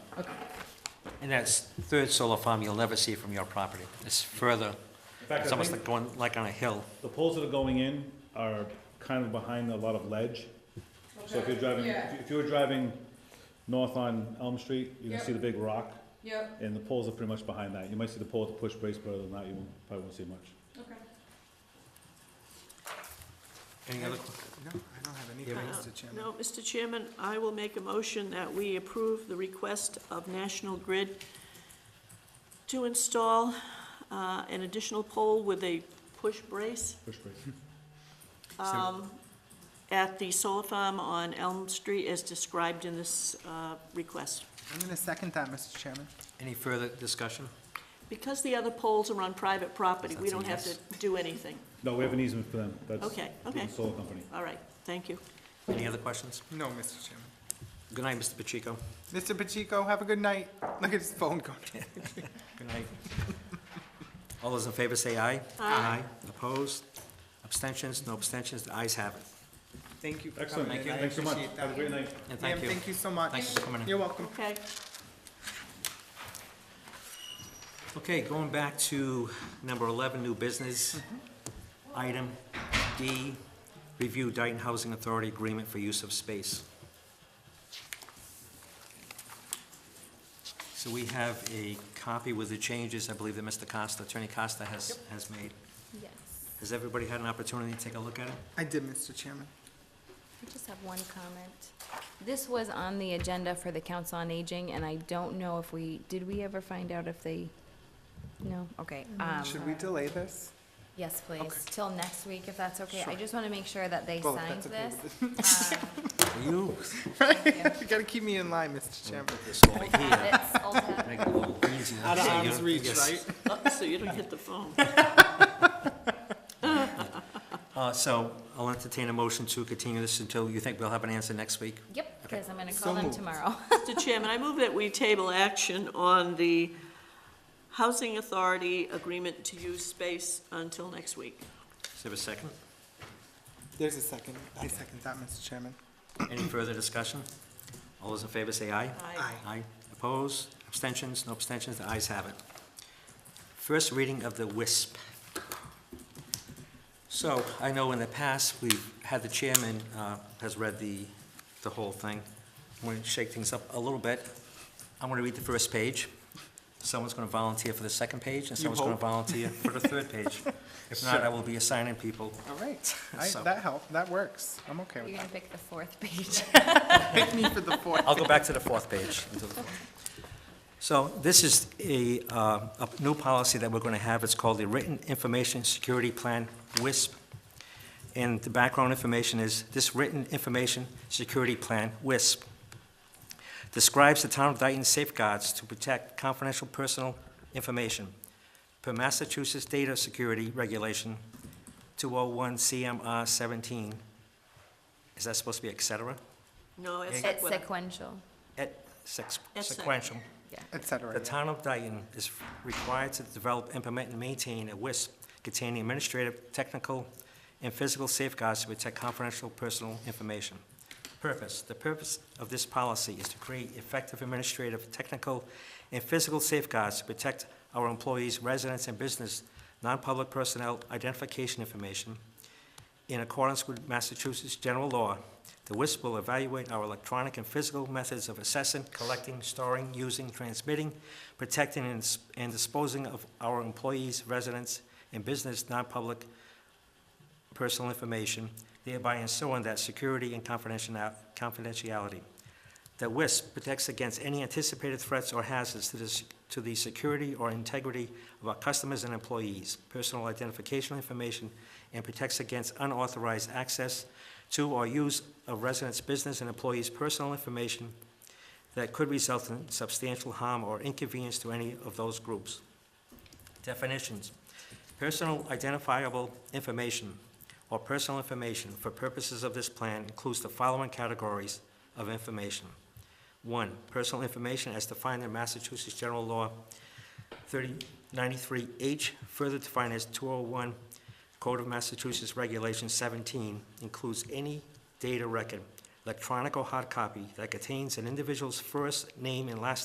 Okay. And that's third solar farm you'll never see from your property. It's further, In fact, it's I almost think like going, like on a hill. the poles that are going in are kind of behind a lot of ledge. So if you're driving, Yeah, if you were driving north on Elm Street, you can see the big rock, yep, and the poles are pretty much behind that. You might see the pole with the push brace, but other than that, you won't- probably won't see much. okay. Any other, No, I don't have anything, Yeah, Mr. Chairman. Uh, No, Mr. Chairman, I will make a motion that we approve the request of National Grid to install uh, an additional pole with a push brace Push brace. um, at the solar farm on Elm Street as described in this uh, request. I'm gonna second that, Mr. Chairman. any further discussion? Because the other poles are on private property, we That's a don't have to yes. do anything. No, we have an easement for them. That's Okay, okay. the solar company. All right, thank you. Any other questions? No, Mr. Chairman. Good night, Mr. Pacheco. Mr. Pacheco, have a good night. Look at his phone going. Good night. All those in favor say aye. Aye. Opposed? Abstentions? No abstentions? The ayes have it. Thank you for Excellent. coming in. I Thanks so much. appreciate that. Have a great night. And Ma'am, thank you. thank you so much. Thanks for coming in. You're welcome. Okay, Okay, going back to number 11, new business. Mm-hmm. Item D, review Dayton Housing Authority agreement for use of space. So we have a copy with the changes, I believe that Mr. Costa, Attorney Costa has, has made. Yes, Has everybody had an opportunity to take a look at it? I did, Mr. Chairman. I just have one comment. This was on the agenda for the Council on Aging, and I don't know if we, did we ever find out if they, no, okay. um, Should we delay this? Yes, Okay. please, till next week, if that's okay. I Sure. just want to make sure that they Well, signed that's okay this. with You. it. You gotta keep me in line, Mr. Chairman. This over here. Habits, old habits. Make it a little easier. Out of So you arm's don't- reach, yes. right? oh, so you don't hit the phone. Uh, So I'll entertain a motion to continue this until you think we'll have an answer next week. Yep, Okay. because I'm going to So call them moved. tomorrow. Mr. Chairman, I move that we table action on the Housing Authority agreement to use space until next week. Is there a second? There's a second. I second that, Mr. Chairman. Any further discussion? All those in favor say aye. Aye. Aye. Opposed? Abstentions? No abstentions? The ayes have it. First reading of the WISP. So I know in the past, we've had the chairman uh, has read the, the whole thing. I'm going to shake things up a little bit. I'm going to read the first page. Someone's going to volunteer for the second page, and someone's going to hope? volunteer for the third page. If not, I will be assigning people. All right. I- So- That helped. That works. I'm okay You're with going that. to pick the fourth page. Pick me for the fourth. I'll go back to the fourth page. until the fourth. So this is a, uh, a new policy that we're going to have. It's called the Written Information Security Plan, WISP. And the background information is, this Written Information Security Plan, WISP, describes the town of Dayton safeguards to protect confidential personal information per Massachusetts Data Security Regulation 201 CMR 17. Is that supposed to be et cetera? No, it's It's not. sequential. Et sex- Et sec- sequential. Et cetera. The town of Dayton is required to develop, implement, and maintain a WISP containing administrative, technical, and physical safeguards to protect confidential personal information. Purpose, the purpose of this policy is to create effective administrative, technical, and physical safeguards to protect our employees, residents, and business, non-public personnel identification information, in accordance with Massachusetts general law, the WISP will evaluate our electronic and physical methods of assessing, collecting, storing, using, transmitting, protecting, and s- and disposing of our employees, residents, and business non-public personal information, thereby ensuring that security and confidential- confidentiality. The WISP protects against any anticipated threats or hazards to the, s- to the security or integrity of our customers and employees, personal identification information, and protects against unauthorized access to or use of residents' business and employees' personal information that could result in substantial harm or inconvenience to any of those groups. Definitions. Personal identifiable information or personal information for purposes of this plan includes the following categories of information. One, personal information as defined in Massachusetts General Law 3093H, further defined as 201 Code of Massachusetts Regulation 17, includes any data record, electronic or hard copy, that contains an individual's first name and last